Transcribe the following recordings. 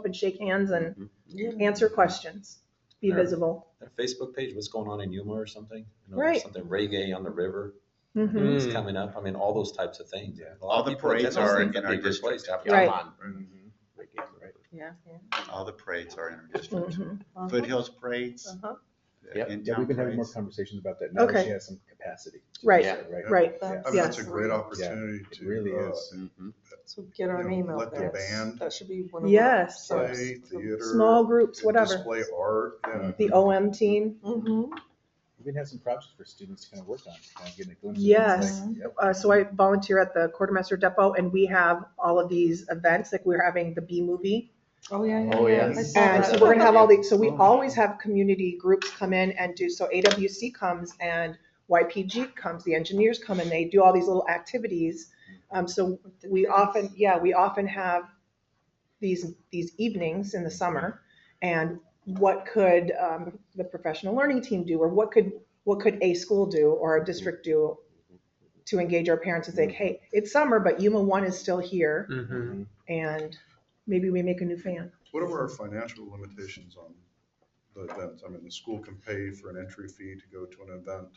up and shake hands and Mhm. answer questions, be Sure. visible. That Facebook page, what's going on in Yuma or something? You know, Right. Something reggae on the river Mhm. is Mm. coming up. I mean, all those types of things. Yeah. A lot All of the people attend parades those are things. in our That'd be a good district. place to have a Right. con. Yeah. All the parades are in our district. Mhm. Foothills parades, Uh-huh. uh, Yep. Yeah, in-town we've been having more parades. conversations about that now that Okay. she has some capacity. to do Right. so, Right. Right, Yeah. I mean, that's Yes. a great opportunity It to. really uh, is. Mm-hmm. Mhm. So get our you know, name out let the there. band That should be one of. our Yes. Play, Yes. theater. small groups, and whatever, Display art. uh, yeah. the OM team. Mhm. We've been having some projects for students to kind of work on, kind of getting a glimpse. of Yes. things like- yep. Uh, so I volunteer at the quartermaster depot and we have all of these events, like we're having the B movie. Oh, yeah, yeah. Oh, yeah. yes. I saw And that. so we're gonna have all the, so we always have community groups come in and do, so AWC comes and YPG comes, the engineers come and they do all these little activities. Um, so we often, yeah, we often have these, these evenings in the summer. And what could um, the professional learning team do, or what could, what could a school do or a district do to engage our parents and say, Mm-hmm. hey, it's summer, but Yuma One is still here, Mhm. and maybe we make a new fan. What are our financial limitations on the events? I mean, the school can pay for an entry fee to go to an event.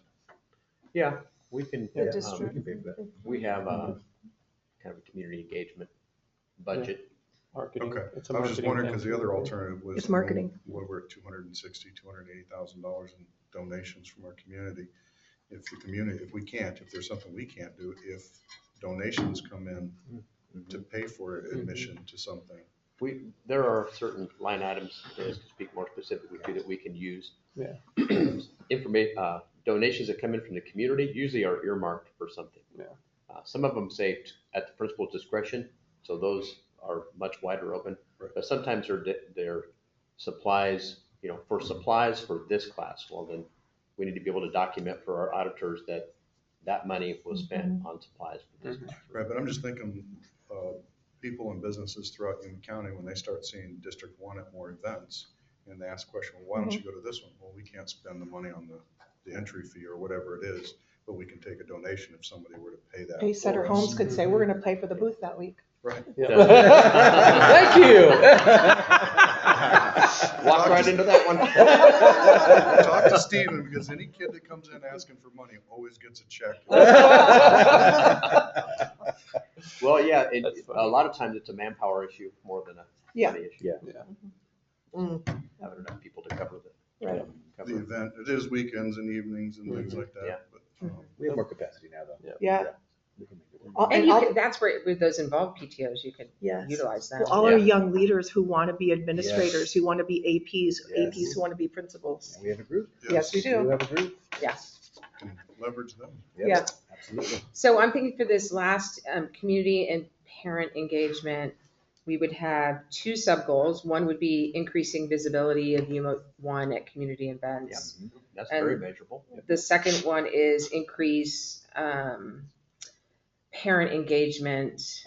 Yeah, we can, Yeah, The um, district. we can pay for that. we have Mm-hmm. a kind of a community engagement budget. Marketing, Okay. it's a I was just marketing wondering, thing. because the other alternative was. It's marketing. What we're at two hundred and sixty, two hundred and eighty thousand dollars in donations from our community. If the community, if we can't, if there's something we can't do, if donations come in to pay for admission to something. We, there are certain line items, uh, to speak more specifically, to that we can use. Yeah. Informa, uh, donations that come in from the community usually are earmarked for something. Yeah. Uh, some of them say t- at the principal's discretion, so those are much wider open. Right. But sometimes they're, di- they're supplies, you know, for supplies for this class, well then, we need to be able to document for our auditors that that money was spent Mm-hmm. on supplies for this. Mhm. class. Right, but I'm just thinking, uh, people and businesses throughout Yuma County, when they start seeing District One at more events, and they ask the question, well, why don't you Mm-hmm. go to this one? Well, we can't spend the money on the, the entry fee or whatever it is, but we can take a donation if somebody were to pay that. Pace Center for us. Homes could say, we're gonna play for the booth that week. Right. Yeah. Thank you. Walk right into that one. Talk to Steven, because any kid that comes in asking for money always gets a check. Well, yeah, it, That's a funny. lot of times it's a manpower issue more than a Yeah. money issue. Yeah. Yeah. Having enough people to cover the. um, Right. The cover- event, it is weekends and evenings and Mm-hmm. things like Yeah. that, but, um, We have more capacity now, though. Yeah, We can make it work. All- And and you all- could, that's where, with those involved PTOs, you could Yes. utilize that. Well, all our Yeah. young leaders who want to be administrators, who want to be APs, Yes. APs who want to be principals. And We have a group. Yes, we We do do. have a group. can Leverage them. Yep, Yeah. Absolutely. So I'm thinking for this last, um, community and parent engagement, we would have two sub-goals. One would be increasing visibility of UMO one at community events. Mm-hmm. That's very And- measurable. The second one is increase, um, parent engagement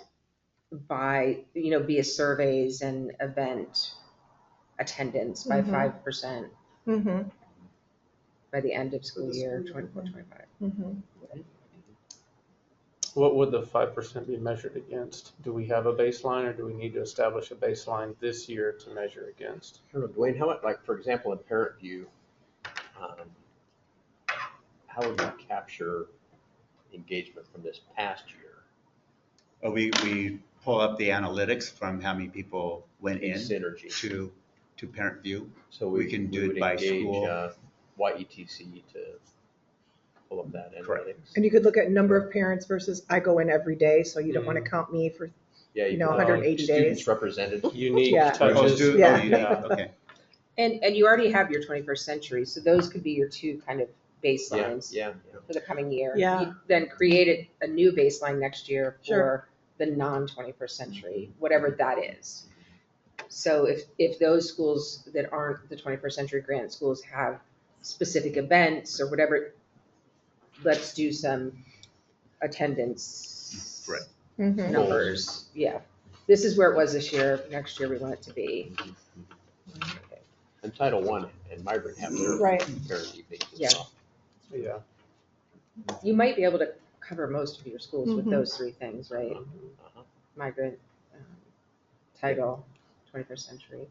by, you know, via surveys and event attendance by Mhm. five percent Mhm, by the end of school this year school year. twenty-four, twenty-five. mhm. What would the five percent be measured against? Do we have a baseline or do we need to establish a baseline this year to measure against? I don't know, Dwayne, how much, like, for example, in Parent View, um, how would we capture engagement from this past year? Uh, We, we pull up the analytics from how many people went in Synergy. to, to Parent View. So we can do it would by engage, school. uh, YETC to pull up that Correct. analytics. And you could look at number of parents versus I go in every day, so you don't want to count me for, Yeah, you know, can, uh, 180 Students days. represented. Unique Yeah. Oh, touches. do- oh, yeah. you did, uh, Okay. And, and you already have your twenty-first century, so those could be your two kind of Yeah, baselines yeah. for the coming year. Yeah. You Then create a, a new baseline next year Sure. for the non-twenty-first century, whatever that is. So if, if those schools that aren't the twenty-first century grant schools have specific events or whatever, let's do some attendance. Right. Mhm. Numbers, yeah. This is where it was this year, next year we want it to be. And Title One and migrant have their Right. parent evenings as Yeah. well. Yeah. You might be able to cover most of your schools with Mhm. those three things, right? Uh-huh. Migrant, um, title, 21st century.